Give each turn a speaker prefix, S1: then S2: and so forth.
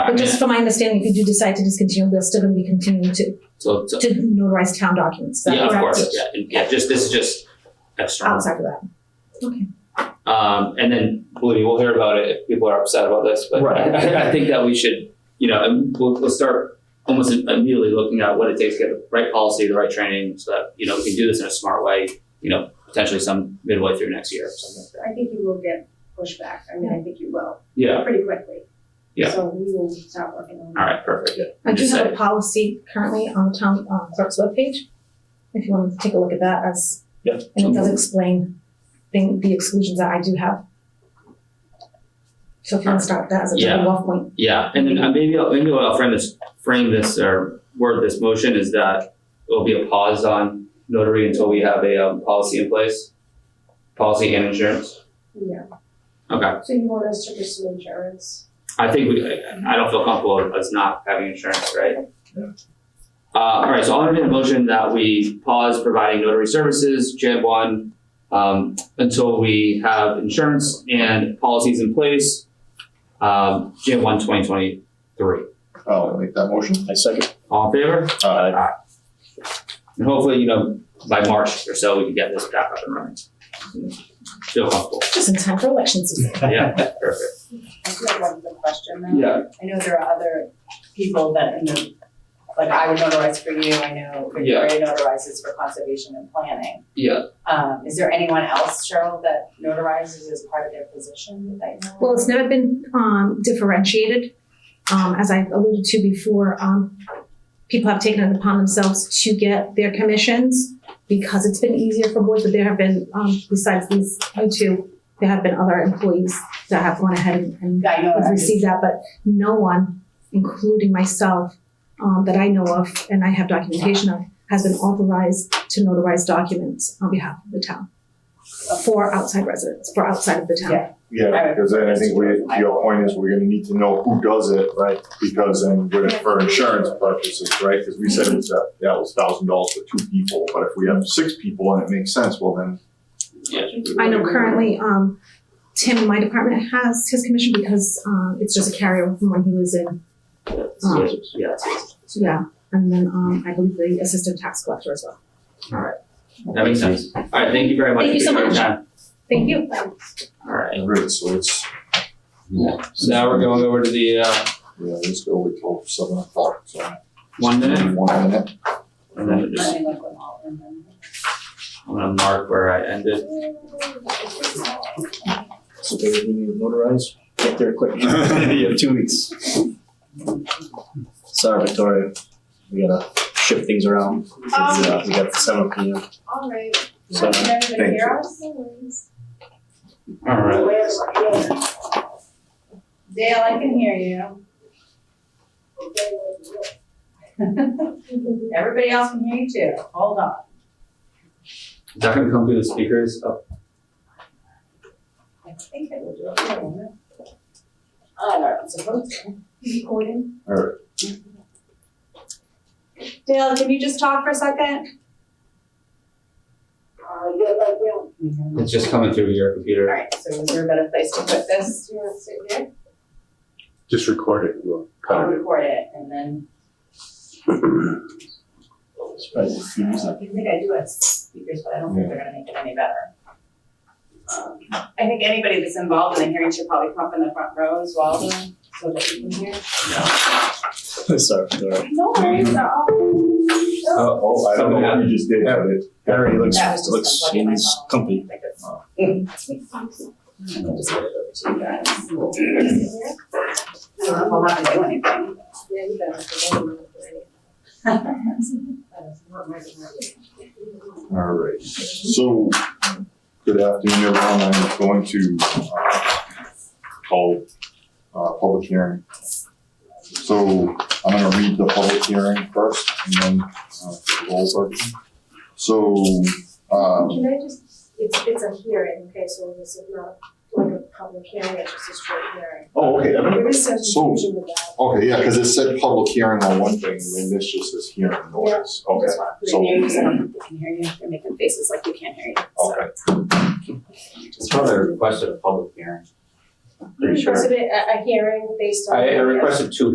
S1: Or just from my understanding, if you do decide to discontinue, they'll still gonna be continuing to,
S2: So, so-
S1: to notarize town documents.
S2: yeah, of course, yeah, and- yeah, just, this is just external.
S1: Outside of that. Okay. Oh.
S2: Um, and then, believe me, we'll hear about it if people are upset about this, but
S3: Right.
S2: I, I think that we should, you know, and we'll, we'll start almost immediately looking at what it takes to get the right policy, the right training, so that, you know, we can do this in a smart way, you know, potentially some midway through next year or something like that.
S4: I think you will get pushback. I mean, I think you will,
S2: Yeah,
S4: pretty quickly.
S2: Yeah.
S4: So we will start working on
S2: all
S4: that.
S2: right, perfect.
S1: I do
S2: Just
S1: have
S2: say.
S1: a policy currently on the town uh, clerk's webpage. If you want to take a look at that as,
S3: Yeah.
S1: and it does explain the, the exclusions that I do have. So if you want to start that as a jumping off point.
S2: Yeah, and then uh, maybe I'll, maybe I'll frame this, frame this or word this motion is that it'll be a pause on notary until we have a um, policy in place, policy and insurance.
S4: Yeah.
S2: Okay,
S4: So you want us to pursue insurance?
S2: I think we, I I don't feel comfortable with us not having insurance, right?
S3: Yeah.
S2: Uh, all right, so I'll entertain a motion that we pause providing notary services, Jan one, um, until we have insurance and policies in place, um, Jan one, twenty twenty-three.
S5: I'll make that motion. Uh,
S3: I second.
S2: All in favor?
S3: Aye.
S2: And hopefully, you know, by March or so, we can get this back up and running. Feel comfortable.
S1: Just in time for election season.
S2: Yeah, perfect.
S6: I do have one quick question though.
S2: Yeah,
S6: I know there are other people that, in the- like I would notarize for you, I know
S2: Yeah.
S6: Victoria notarizes for conservation and planning.
S2: yeah.
S6: Um, is there anyone else, Cheryl, that notarizes as part of their position that you know?
S1: Well, it's never been um, differentiated. Um, as I alluded to before, um, people have taken it upon themselves to get their commissions because it's been easier for boards, but there have been, um, besides these, you two, there have been other employees that have gone ahead and- and
S6: I know,
S1: I've
S6: I'm just,
S1: received that, but no one, including myself, um, that I know of, and I have documentation of, has been authorized to notarize documents on behalf of the town. For outside residents, for outside of the town.
S6: Yeah.
S5: Yeah, because then I think we, your point is we're gonna need to know who does it, right? Because then we're for insurance purposes, right? Because we said it was, that that was thousand dollars for two people, but if we have six people and it makes sense, well then.
S1: I know currently, um, Tim in my department has his commission because, um, it's just a carryover from when he was in,
S2: Yeah, yeah,
S1: yeah. And then, um, I believe the assistant tax collector as well.
S2: that makes sense. All right, thank you very much.
S1: Thank you so
S2: Appreciate your
S1: much.
S2: time.
S1: Thank you.
S2: All right.
S5: Great, so it's.
S2: Yeah. So now we're going over to the, uh,
S5: Yeah, let's go with till seven o'clock, so.
S2: one minute.
S5: One minute.
S2: And then we'll
S6: I
S2: just,
S6: mean, like, when all in them.
S2: I'm gonna mark where I ended.
S3: So they really need to notarize, get there quick. You have two weeks. Sorry, Victoria. We gotta shift things around. Uh, We got the seven P M.
S4: All right.
S3: So,
S4: Did everybody
S5: thank
S4: hear us? No worries.
S2: All right.
S6: Dale, I can hear you. Everybody else can hear you too, hold on.
S2: Is that gonna come through the speakers? Oh,
S6: I think it will. I don't know. I don't know, I'm supposed to.
S4: Recording.
S6: Dale, can you just talk for a second?
S2: It's just coming through your computer.
S6: Alright, so is there a better place to put this?
S4: Do you want to sit there?
S5: Just record it, we'll
S6: I'll record it and then, I think I do have speakers, but I don't think they're gonna make it any better. Um, I think anybody that's involved in the hearing should probably come up in the front row as well, so that you can hear.
S3: Sorry, Victoria.
S6: No worries, they're all.
S5: Oh, oh, I don't know what you just did, but it.
S3: Harry looks,
S6: That was
S3: looks,
S6: just unplugging my
S3: he's
S6: phone.
S3: comfy.
S6: Like it's- I'll just give it over to you guys. I don't know if I'll have to do anything.
S4: Yeah, you better.
S5: All right, so, good afternoon, everyone, I'm going to, uh, call, uh, public hearing. So, I'm gonna read the public hearing first, and then, uh, roll over. So, um,
S4: Can I just, it's, it's a hearing, okay, so this is not like a public hearing, it's just a straight hearing.
S5: oh, okay, I mean,
S4: There is some
S5: So-
S4: confusion with that.
S5: okay, yeah, cause it said public hearing on one thing, and then this just says hearing noise, okay,
S6: Just want to put it
S5: so,
S6: near you so I don't think they can hear you. They're making faces like they can't hear you. So
S5: okay.
S2: It's probably requested a public hearing.
S4: You requested a, a hearing based on.
S2: I, I requested two